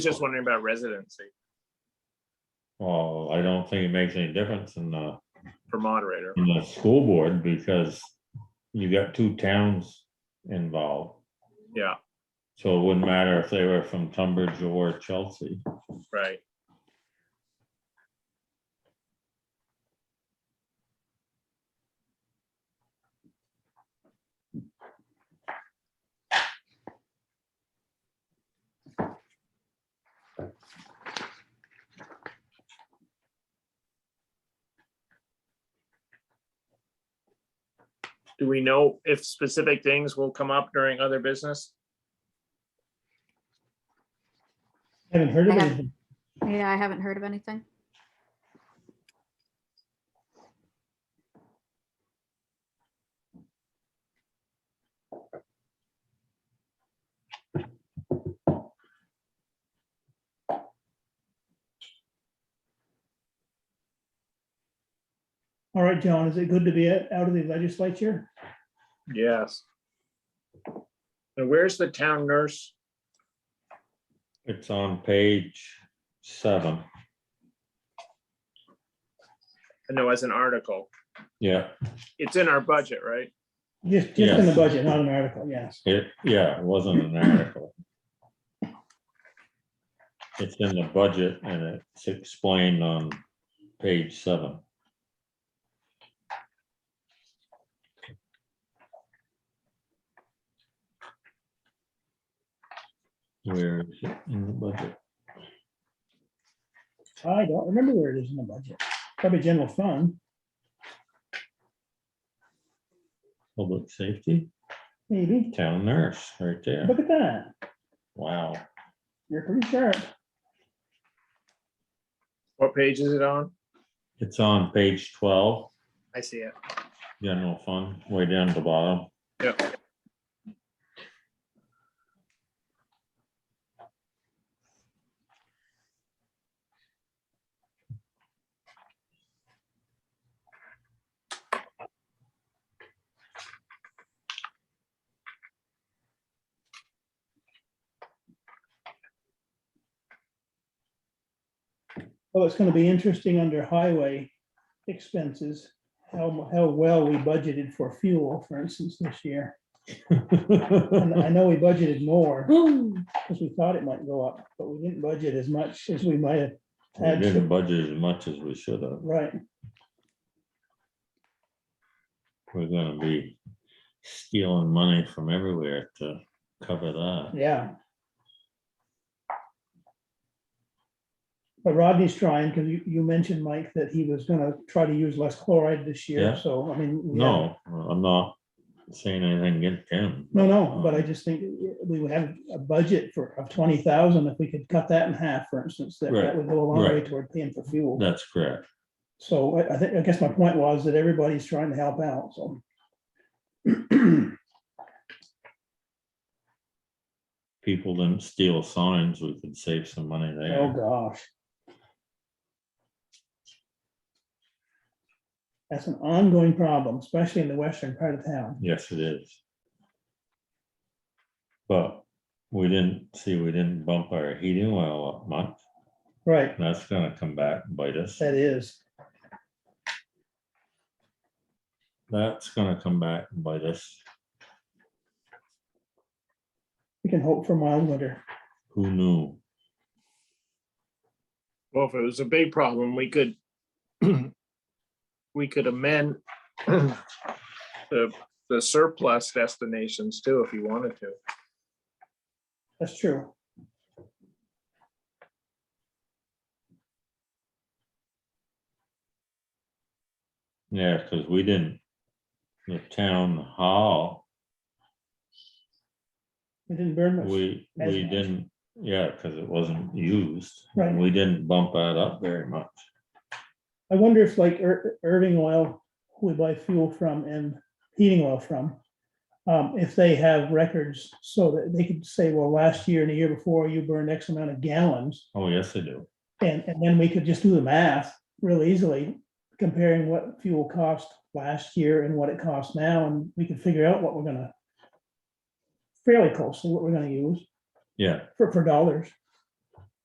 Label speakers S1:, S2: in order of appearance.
S1: Just wondering about residency
S2: Well, I don't think it makes any difference in the,
S1: for moderator.
S2: in the school board because you got two towns involved.
S1: Yeah,
S2: So it wouldn't matter if they were from Tunbridge or Chelsea.
S1: right. Do we know if specific things will come up during other business?
S3: Haven't heard of
S4: I have-
S3: it.
S4: Yeah, I haven't heard of anything.
S3: All right, John, is it good to be out out of the legislature?
S1: Yes. And where's the town nurse?
S2: It's on page seven.
S1: I know as an article.
S2: Yeah,
S1: It's in our budget, right?
S3: Just, just in the
S2: Yes.
S3: budget, not an article, yes.
S2: it, yeah, it wasn't an article. It's in the budget and it's explained on page seven. Where is it in the budget?
S3: I don't remember where it is in the budget. Probably general fund.
S2: Public safety,
S3: maybe.
S2: town nurse, right there.
S3: Look at that.
S2: Wow.
S3: You're pretty sharp.
S1: What page is it on?
S2: It's on page twelve,
S1: I see it.
S2: general fund, way down at the bottom.
S1: Yep.
S3: Well, Oh, it's gonna be interesting under highway expenses, how, mu- how well we budgeted for fuel, for instance, this year. And I know we budgeted more because we thought it might go up, but we didn't budget as much as we might have.
S2: We didn't budget as much as we should have.
S3: Right,
S2: We're gonna be stealing money from everywhere to cover that.
S3: yeah. But Rodney's trying, because you, you mentioned, Mike, that he was gonna try to use less chloride this
S2: Yeah.
S3: year, so, I mean. we haven't-
S2: No, I'm not saying anything against him. Uh,
S3: No, no,
S2: Uh-huh.
S3: but I just think we would have a budget for, of twenty thousand, if we could cut that in half, for instance, that,
S2: Right,
S3: that would go a long way
S2: right. too.
S3: toward paying for fuel.
S2: That's correct.
S3: So I, I think, I guess my point was that everybody's trying to help out, so.
S2: People didn't steal signs, we could save some money
S3: Oh,
S2: there.
S3: gosh. That's an ongoing problem, especially in the western part of town.
S2: Yes, it is. But we didn't, see, we didn't bump our heating oil up much.
S3: Right,
S2: That's gonna come back and bite us.
S3: that is.
S2: That's gonna come back and bite us.
S3: We can hope for mild winter.
S2: Who knew?
S1: Well, if it was a big problem, we could we could amend the the surplus destinations too, if you wanted to.
S3: That's true.
S2: Yeah, because we didn't, the town hall,
S3: We didn't burn much.
S2: we,
S3: As
S2: we
S3: much.
S2: didn't, yeah, because it wasn't used.
S3: Right.
S2: We didn't bump that up very much.
S3: I wonder if like Ir- Irving Oil, who we buy fuel from and heating oil from, um, if they have records so that they could say, well, last year and the year before, you burned X amount of gallons.
S2: Oh, yes, they do.
S3: And, and then we could just do the math real easily, comparing what fuel cost last year and what it costs now, and we can figure out what we're gonna fairly closely, what we're gonna use
S2: Yeah,
S3: for, for dollars.